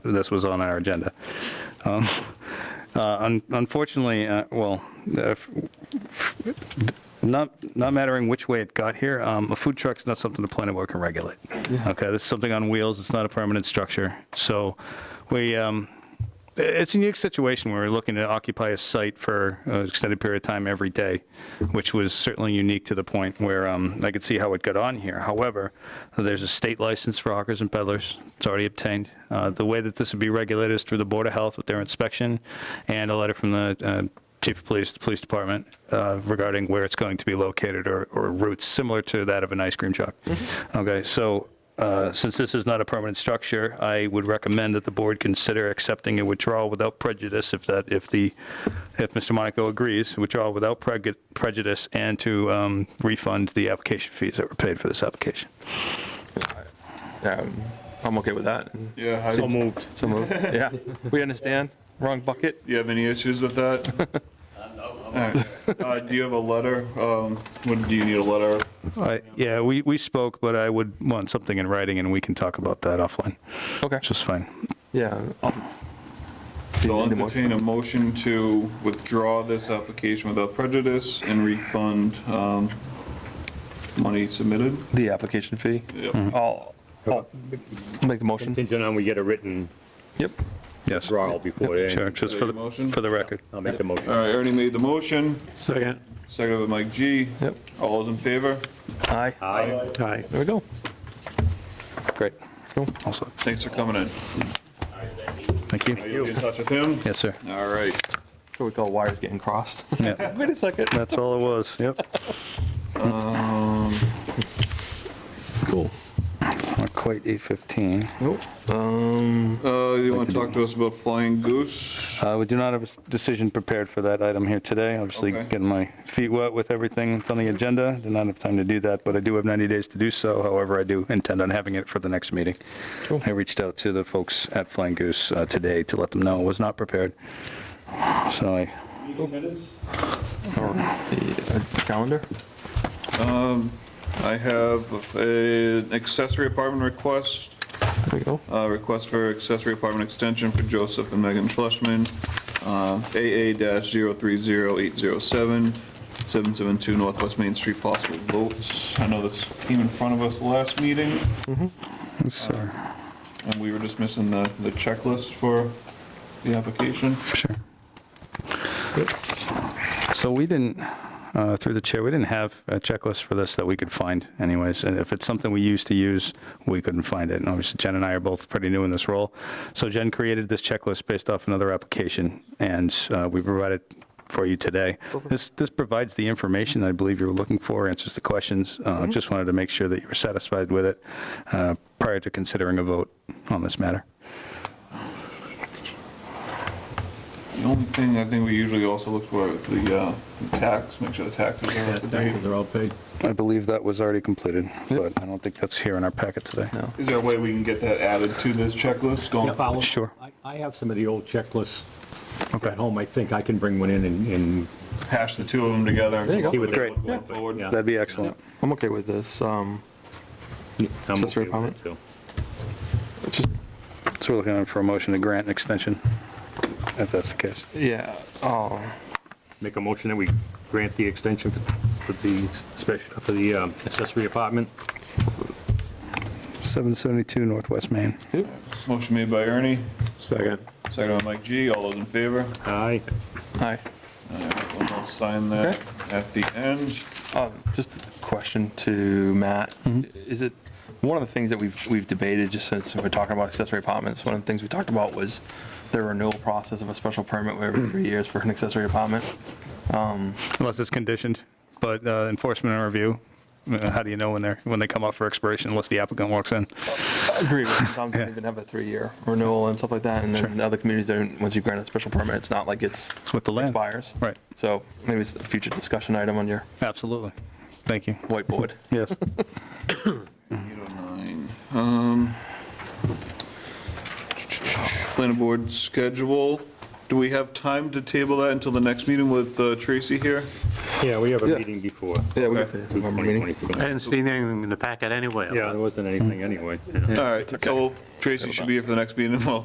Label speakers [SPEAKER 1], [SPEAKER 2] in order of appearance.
[SPEAKER 1] this was on our agenda. Um, uh, un- Unfortunately, uh, well, uh, f- not, not mattering which way it got here, um, a food truck's not something the planning board can regulate. Okay, this is something on wheels, it's not a permanent structure. So we, um, i- it's a unique situation where we're looking to occupy a site for an extended period of time every day, which was certainly unique to the point where um, I could see how it got on here. However, there's a state license for hawkers and peddlers, it's already obtained. Uh, The way that this would be regulated is through the Board of Health with their inspection and a letter from the uh, chief of police, the police department, uh, regarding where it's going to be located or or routes similar to that of an ice cream truck. Okay, so uh, since this is not a permanent structure, I would recommend that the board consider accepting a withdrawal without prejudice if that, if the, if Mr. Monaco agrees, withdrawal without preg- prejudice and to um, refund the application fees that were paid for this application.
[SPEAKER 2] Um, I'm okay with that.
[SPEAKER 3] Yeah,
[SPEAKER 2] So
[SPEAKER 3] I,
[SPEAKER 2] moved. So moved. Yeah, we understand. Wrong bucket.
[SPEAKER 3] you have any issues with that? Alright. Uh, do you have a letter? Um, what, do you need a letter?
[SPEAKER 1] I- Yeah, we, we spoke, but I would want something in writing and we can talk about that offline,
[SPEAKER 2] Okay.
[SPEAKER 1] which is fine.
[SPEAKER 2] Yeah. I'll-
[SPEAKER 3] So I'll
[SPEAKER 2] Need a motion.
[SPEAKER 3] entertain a motion to withdraw this application without prejudice and refund, um, money submitted.
[SPEAKER 2] The application fee.
[SPEAKER 3] Yep.
[SPEAKER 2] I'll, I'll make the motion.
[SPEAKER 4] Contingent on we get a written
[SPEAKER 2] Yep.
[SPEAKER 1] Yes, sure,
[SPEAKER 4] draw before then.
[SPEAKER 1] just for the, for the record.
[SPEAKER 4] I'll make the motion.
[SPEAKER 3] Alright, Ernie made the motion,
[SPEAKER 5] Second.
[SPEAKER 3] second by Mike G.
[SPEAKER 2] Yep.
[SPEAKER 3] All those in favor?
[SPEAKER 2] Aye.
[SPEAKER 4] Aye.
[SPEAKER 5] Aye.
[SPEAKER 2] There we go.
[SPEAKER 1] Great.
[SPEAKER 2] Cool.
[SPEAKER 1] Also,
[SPEAKER 3] Thanks for coming in.
[SPEAKER 1] thank
[SPEAKER 3] Are
[SPEAKER 1] you.
[SPEAKER 3] you in touch with him?
[SPEAKER 1] Yes, sir.
[SPEAKER 3] Alright,
[SPEAKER 2] So we call wires getting crossed.
[SPEAKER 1] Yeah,
[SPEAKER 2] Wait a second.
[SPEAKER 1] That's all it was, yep.
[SPEAKER 2] Cool.
[SPEAKER 1] Not quite 8:15.
[SPEAKER 2] Nope. Um,
[SPEAKER 3] uh, you wanna talk to us about Flying Goose?
[SPEAKER 1] Uh, We do not have a s- decision prepared for that item here today. Obviously,
[SPEAKER 3] Okay.
[SPEAKER 1] getting my feet wet with everything that's on the agenda. Did not have time to do that, but I do have 90 days to do so. However, I do intend on having it for the next meeting. I reached out to the folks at Flying Goose uh, today to let them know it was not prepared. So I,
[SPEAKER 2] the uh, calendar.
[SPEAKER 3] I have a- an accessory apartment request
[SPEAKER 2] There we go.
[SPEAKER 3] Uh, Request for accessory apartment extension for Joseph and Megan uh, Fleshman, AA-030807, 772 Northwest Main Street, possible votes. I know this came in front of us last meeting,
[SPEAKER 1] so,
[SPEAKER 3] and we were just missing the the checklist for the application.
[SPEAKER 1] sure. So we didn't, uh, through the chair, we didn't have a checklist for this that we could find anyways. And if it's something we used to use, we couldn't find it. And obviously Jen and I are both pretty new in this role. So Jen created this checklist based off another application and uh, we provided for you today. This, this provides the information that I believe you were looking for, answers the questions. Uh, Just wanted to make sure that you were satisfied with it uh, prior to considering a vote on this matter.
[SPEAKER 3] The only thing I think we usually also look for is the uh, tax, make sure the taxes are up to date.
[SPEAKER 4] They're all paid.
[SPEAKER 1] I believe that was already completed, but I don't think that's here in our packet today.
[SPEAKER 3] Is there a way we can get that added to this checklist going?
[SPEAKER 1] Sure.
[SPEAKER 4] I- I have some of the old checklists
[SPEAKER 1] Okay.
[SPEAKER 4] at home. I think I can bring one in and- and
[SPEAKER 3] Hash the two of them together.
[SPEAKER 4] There you go.
[SPEAKER 3] See what they
[SPEAKER 1] Great.
[SPEAKER 3] look Going forward.
[SPEAKER 4] Yeah.
[SPEAKER 1] That'd be excellent.
[SPEAKER 2] I'm okay with this. Um,
[SPEAKER 4] I'm
[SPEAKER 2] Accessory
[SPEAKER 4] okay with
[SPEAKER 2] apartment?
[SPEAKER 4] it, too.
[SPEAKER 2] just,
[SPEAKER 1] So we're looking for a motion to grant an extension, if that's the case.
[SPEAKER 2] yeah. Oh,
[SPEAKER 4] Make a motion that we grant the extension for the special, for the um, accessory apartment.
[SPEAKER 1] 772 Northwest Main.
[SPEAKER 3] Motion made by Ernie,
[SPEAKER 5] Second.
[SPEAKER 3] second by Mike G. All those in favor?
[SPEAKER 4] Aye.
[SPEAKER 2] aye.
[SPEAKER 3] We'll all sign that at the end.
[SPEAKER 2] Um, Just a question to Matt. Is it, one of the things that we've, we've debated, just since we're talking about accessory apartments, one of the things we talked about was the renewal process of a special permit where every three years for an accessory apartment.
[SPEAKER 1] Unless it's conditioned, but uh, enforcement and review, uh, how do you know when they're, when they come up for expiration unless the applicant walks in?
[SPEAKER 2] I agree with you. Sometimes they even have a three-year renewal and stuff like that, and then other communities, don't- once you grant a special permit, it's not like it's
[SPEAKER 1] It's with the land.
[SPEAKER 2] expires.
[SPEAKER 1] Right,
[SPEAKER 2] So maybe it's a future discussion item on your
[SPEAKER 1] absolutely. Thank you.
[SPEAKER 2] whiteboard.
[SPEAKER 1] Yes.
[SPEAKER 3] 809. Um, Planning board schedule. Do we have time to table that until the next meeting with uh, Tracy here?
[SPEAKER 4] Yeah, we have a
[SPEAKER 2] Yeah.
[SPEAKER 4] meeting before.
[SPEAKER 2] Yeah, we got
[SPEAKER 3] Okay.
[SPEAKER 2] the November meeting.
[SPEAKER 4] 2022.
[SPEAKER 5] I didn't see anything in the packet anyway.
[SPEAKER 4] Yeah, there wasn't anything anyway. yeah.
[SPEAKER 3] All right, so Tracy should be here for the next meeting. Well,